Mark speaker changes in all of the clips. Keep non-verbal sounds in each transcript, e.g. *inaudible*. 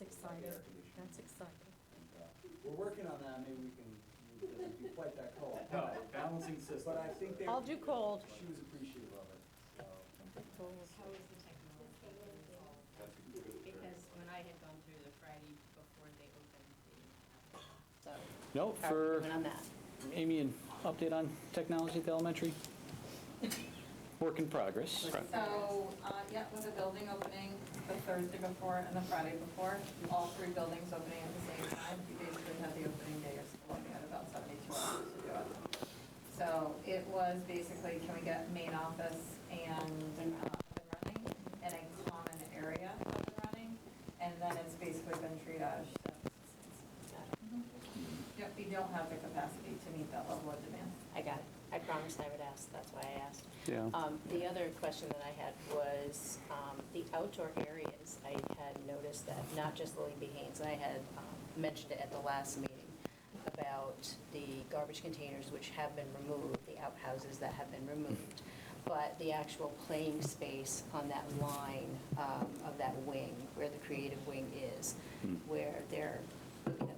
Speaker 1: exciting.
Speaker 2: air conditioning.
Speaker 1: That's exciting.
Speaker 2: And, uh, We're working on that, maybe we can, it doesn't do quite that cold.
Speaker 3: No, balancing systems.
Speaker 2: But I think they.
Speaker 1: I'll do cold.
Speaker 2: She was appreciative of it, so.
Speaker 4: How is the technology being solved?
Speaker 3: That's a good observation.
Speaker 4: Because when I had gone through the Friday before they opened, uh, they didn't have it.
Speaker 1: So,
Speaker 5: Oh,
Speaker 6: No,
Speaker 1: how are we
Speaker 6: for-
Speaker 1: doing on that?
Speaker 6: Amy, an update on technology at the elementary? Work in progress.
Speaker 7: So, uh, yeah, with the building opening the Thursday before and the Friday before, all three buildings opening at the same time, we basically had the opening day of school, we had about 72 hours to do it. So it was basically, can we get main office and uh, up and running, and a common area up and running, and then it's basically been triaged since. Yep, we don't have the capacity to meet that level of demand.
Speaker 5: I got it. I promised I would ask, that's why I asked.
Speaker 6: Yeah.
Speaker 5: Um, The other question that I had was um, the outdoor areas. I had noticed that, not just Lily B. Haynes, I had um, mentioned it at the last meeting about the garbage containers which have been removed, the outhouses that have been removed, but the actual playing space on that line um, of that wing, where the creative wing is,
Speaker 6: Hmm.
Speaker 5: where they're, you know,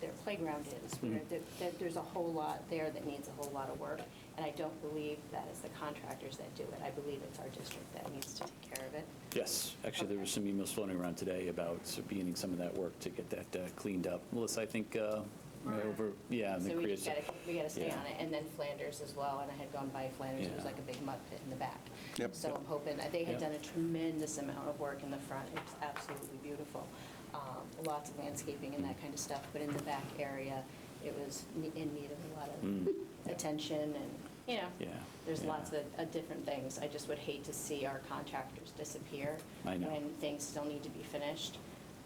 Speaker 5: their playground is. where
Speaker 6: Mhm.
Speaker 5: there- there- There's a whole lot there that needs a whole lot of work, and I don't believe that it's the contractors that do it. I believe it's our district that needs to take care of it.
Speaker 6: Yes, actually, there were some emails floating around today about sort of beginning some of that work to get that uh, cleaned up. Melissa, I think, uh,
Speaker 4: Right.
Speaker 6: over, yeah. and the
Speaker 5: So we just
Speaker 6: creative-
Speaker 5: gotta, we gotta stay
Speaker 6: Yeah.
Speaker 5: on it. And then Flanders as well, and I had gone by Flanders, it was
Speaker 6: Yeah.
Speaker 5: like a big mud pit in the back.
Speaker 8: Yep.
Speaker 5: So I'm hoping, uh, they had
Speaker 6: Yep.
Speaker 5: done a tremendous amount of work in the front, it was absolutely beautiful. Um, Lots of landscaping and that kind of stuff, but in the back area, it was ne- in need of a lot
Speaker 6: Mm.
Speaker 5: of *laughs* attention and, you know.
Speaker 6: Yeah,
Speaker 5: There's
Speaker 6: yeah.
Speaker 5: lots of, of different things. I just would hate to see our contractors disappear.
Speaker 6: I know.
Speaker 5: When things still need to be finished.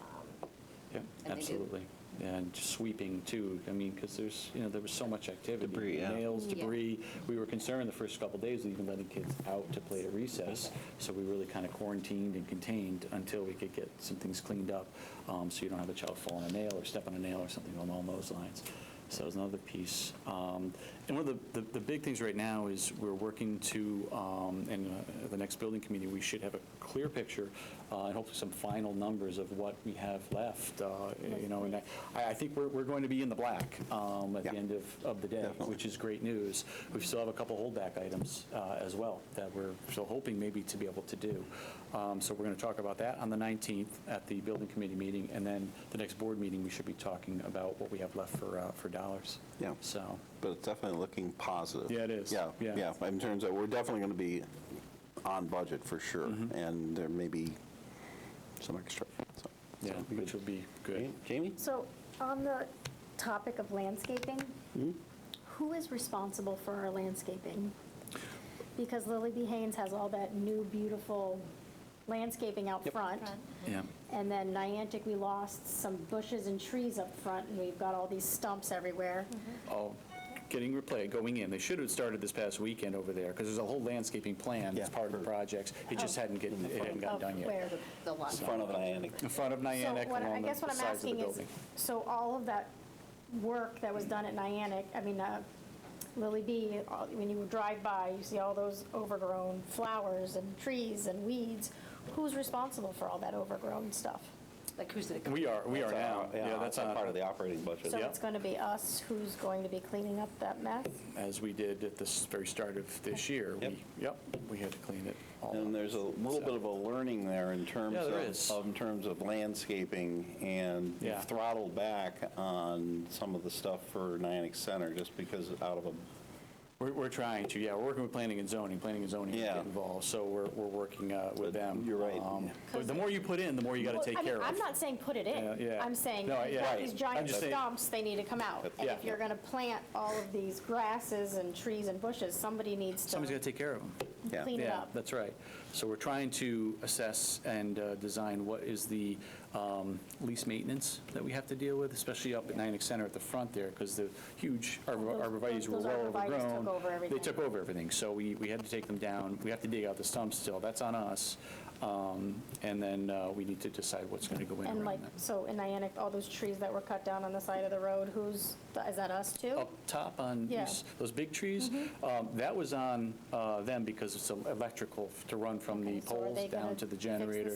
Speaker 5: Um,
Speaker 6: Yeah,
Speaker 5: they do.
Speaker 6: absolutely. And sweeping too, I mean, because there's, you know, there was so much activity.
Speaker 8: Debris, yeah.
Speaker 6: Nails,
Speaker 5: Yeah.
Speaker 6: debris. We were concerned the first couple days with even letting kids out to play at recess. So we really kind of quarantined and contained until we could get some things cleaned up. um, So you don't have a child fall on a nail or step on a nail or something along those lines. So it's another piece. Um, And one of the, the- the big things right now is we're working to, um, and uh, the next building committee, we should have a clear picture uh, and hopefully some final numbers of what we have left, uh, you know, and I, I think we're, we're going to be in the black um, at the
Speaker 8: Yeah.
Speaker 6: end of, of the day,
Speaker 8: Definitely.
Speaker 6: which is great news. We still have a couple holdback items uh, as well that we're still hoping maybe to be able to do. Um, So we're going to talk about that on the 19th at the building committee meeting, and then the next board meeting, we should be talking about what we have left for, uh, for dollars.
Speaker 8: Yeah.
Speaker 6: So,
Speaker 8: But it's definitely looking positive.
Speaker 6: Yeah, it is.
Speaker 8: Yeah,
Speaker 6: Yeah.
Speaker 8: yeah, in terms of, we're definitely going to be on budget for sure,
Speaker 6: Mm-hmm.
Speaker 8: and there may be some extra, so.
Speaker 6: yeah,
Speaker 8: so, good.
Speaker 6: which will be good.
Speaker 8: Jamie?
Speaker 9: So on the topic of landscaping, who is responsible for our landscaping? Because Lily B. Haynes has all that new beautiful landscaping out
Speaker 6: Yep.
Speaker 9: front.
Speaker 6: Yeah.
Speaker 9: And then Niantic, we lost some bushes and trees up front and we've got all these stumps everywhere.
Speaker 6: all getting replayed, going in. They should have started this past weekend over there, because there's a whole landscaping plan that's
Speaker 8: Yeah.
Speaker 6: part of the projects. It just
Speaker 9: Oh.
Speaker 6: hadn't get- it hadn't gotten
Speaker 9: Of
Speaker 6: done
Speaker 9: where?
Speaker 6: yet.
Speaker 5: The the lot.
Speaker 8: Front of Niantic.
Speaker 6: In front of
Speaker 9: So
Speaker 6: Niantic,
Speaker 9: what I- I
Speaker 6: along the
Speaker 9: guess what I'm
Speaker 6: sides of the
Speaker 9: asking is,
Speaker 6: building.
Speaker 9: So all of that work that was done at Niantic, I mean, uh, Lily B, all- when you drive by, you see all those overgrown flowers and trees and weeds. Who's responsible for all that overgrown stuff?
Speaker 5: Like who's the?
Speaker 6: We are, we are now. Yeah, that's
Speaker 8: a
Speaker 6: on-
Speaker 8: part of the operating budget.
Speaker 9: So
Speaker 6: Yeah.
Speaker 9: it's going to be us who's going to be cleaning up that mess?
Speaker 6: As we did at the s- very start of this year.
Speaker 8: Yep.
Speaker 6: we- Yep, we had to clean it all up.
Speaker 8: And there's a little bit of a learning there in terms
Speaker 6: Yeah,
Speaker 8: of.
Speaker 6: there is.
Speaker 8: of- In terms of landscaping, and
Speaker 6: Yeah.
Speaker 8: you've throttled back on some of the stuff for Niantic Center, just because out of a
Speaker 6: We're, we're trying to, yeah, we're working with planning and zoning. Planning and zoning is
Speaker 8: Yeah.
Speaker 6: getting involved, so we're, we're working uh, with
Speaker 8: But
Speaker 6: them.
Speaker 8: you're right.
Speaker 6: Um, but The more you put in, the more you got
Speaker 9: Well,
Speaker 6: to take
Speaker 9: I mean,
Speaker 6: care of.
Speaker 9: I'm not saying put it
Speaker 6: Yeah,
Speaker 9: in.
Speaker 6: yeah.
Speaker 9: I'm saying,
Speaker 6: No,
Speaker 9: you've
Speaker 6: yeah.
Speaker 9: got
Speaker 6: Right.
Speaker 9: these
Speaker 6: I'm
Speaker 9: giant
Speaker 6: just saying-
Speaker 9: stumps, they need to come out. And
Speaker 6: Yeah.
Speaker 9: if you're going to plant all of these grasses and trees and bushes, somebody needs
Speaker 6: Somebody's got to
Speaker 9: to
Speaker 6: take care of them.
Speaker 8: Yeah.
Speaker 9: clean it
Speaker 6: Yeah,
Speaker 9: up.
Speaker 6: that's right. So we're trying to assess and uh, design what is the um, least maintenance that we have to deal with, especially up at Niantic Center at the front there, because the huge arbo-
Speaker 9: Those-
Speaker 6: arborvitae's were
Speaker 9: those
Speaker 6: well
Speaker 9: arborvitaes took
Speaker 6: overgrown.
Speaker 9: over everything.
Speaker 6: They took over everything, so we, we had to take them down. We have to dig out the stumps still, that's on us. Um, And then uh, we need to decide what's going to go in
Speaker 9: And like,
Speaker 6: around that.
Speaker 9: so in Niantic, all those trees that were cut down on the side of the road, who's, is that us too?
Speaker 6: Up top on
Speaker 9: Yeah. Mm-hmm.
Speaker 6: these- those big trees, um, that was on uh, them because it's electrical to run from the
Speaker 9: Okay, so are
Speaker 6: poles
Speaker 9: they gonna
Speaker 6: down to the
Speaker 9: fix the
Speaker 6: generator